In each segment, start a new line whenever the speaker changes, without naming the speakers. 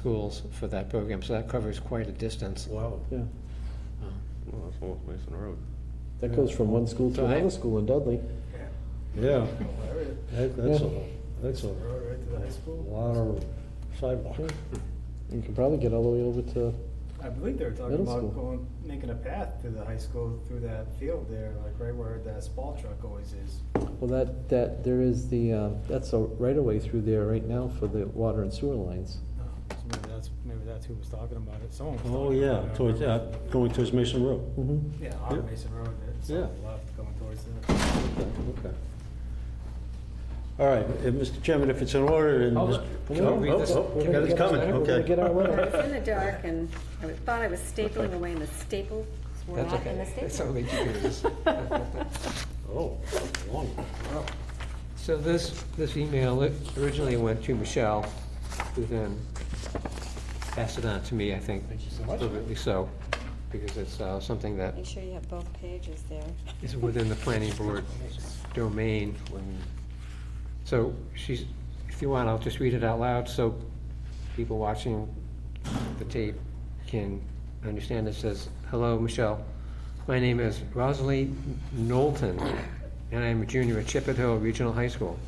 schools for that program, so that covers quite a distance.
Wow.
Yeah,
Well, that's North Mason Road.
that goes from one school to
So I-
another school in Dudley.
Yeah,
Hilarious.
that- that's
Yeah.
a, that's a
Road right to the high school.
lot of sidewalk.
You can probably get all the way over to,
I believe they were talking
Middle
about
school.
going, making a path to the high school through that field there, like right where that spall truck always is.
well, that, that, there is the, um, that's a right-of-way through there right now for the water and sewer lines.
Oh, so Maybe that's, maybe that's who was talking about it, someone was talking
Oh,
about it. I
yeah,
don't
towards,
remember.
yeah, going towards Mason Road.
Mm-hmm.
Yeah, on
Yeah.
Mason Road, it's
Yeah.
on the left going towards the,
Okay, okay. All right, if- Mr. Chairman, if it's in order, then.
Hold
Mr.
it.
Oh,
Can we read
oh,
this?
oh,
Can we
yeah,
read
It's coming,
this?
We're gonna get our
okay.
I was
letter.
in the dark and I was- thought I was stapling away and the staples were
That's
not in the
okay. That's
staple.
only two pages.
Oh, long.
So this, this email it originally went to Michelle, who then passed it on to me, I think. Thank you so much. so, because it's uh, something that
Make sure you have both pages there.
is within the planning board domain. So she's, if you want, I'll just read it out loud so people watching the tape can understand. It says, "Hello, Michelle. My name is Rosalie Knowlton, and I am a junior at Chippewa Hill Regional High School.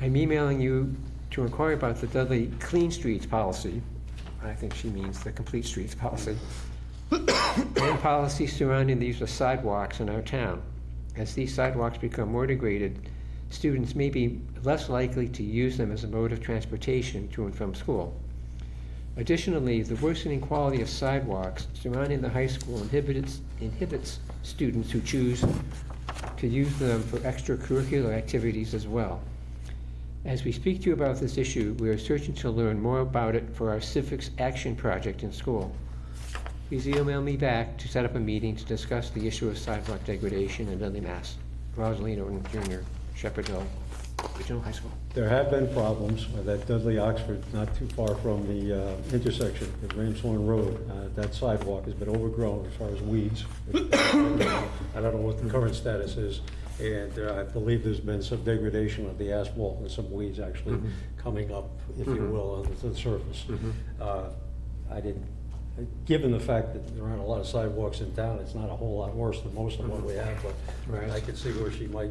I'm emailing you to inquire about the Dudley Clean Streets policy." I think she means the Complete Streets policy and policies surrounding the use of sidewalks in our town. As these sidewalks become more degraded, students may be less likely to use them as a mode of transportation to and from school. Additionally, the worsening quality of sidewalks surrounding the high school inhibits, inhibits students who choose to use them for extracurricular activities as well. As we speak to you about this issue, we are searching to learn more about it for our civics action project in school. Please email me back to set up a meeting to discuss the issue of sidewalk degradation in Dudley, Mass. Rosaline Norton Jr., Shepherd Hill Regional High School.
There have been problems with that Dudley Oxford, not too far from the uh, intersection of Ramshorn Road. Uh, That sidewalk has been overgrown as far as weeds. I don't know what the current status is, and uh, I believe there's been some degradation of the asphalt and some weeds actually coming up, if you will, onto the surface. Uh, I didn't, given the fact that there aren't a lot of sidewalks in town, it's not a whole lot worse than most of what we have, but
Right.
I could see where she might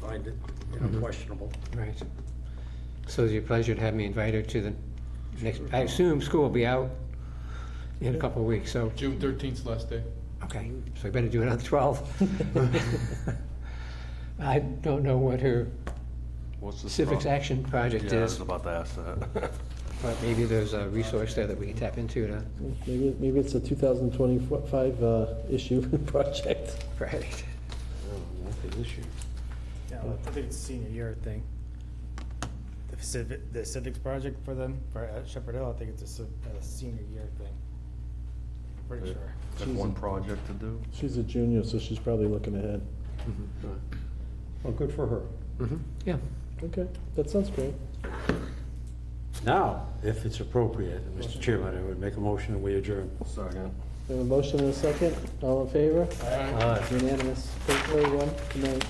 find it you know, questionable.
Right. So it's your pleasure to have me invited to the next, I assume school will be out in a couple of weeks, so,
June thirteenth's last day.
okay, so I better do it on the 12th. I don't know what her
What's the?
civics action project
Yeah, I was
is,
about to ask that.
but maybe there's a resource there that we can tap into to,
Maybe, maybe it's a 2025 uh, issue project.
right?
Oh, Not the issue.
yeah, I think it's a senior year thing. The civic, the civics project for them, for at Shepherd Hill, I think it's a, civ- a senior year thing. Pretty sure.
That's one project to do.
She's a junior, so she's probably looking ahead.
Well, good for her.
Mhm. Yeah.
Okay, that sounds great.
Now, if it's appropriate, Mr. Chairman, I would make a motion that we adjourn.
Second.
We have a motion and a second, all in favor?
Aye.
Unanimous. Thank you, everyone. Good night.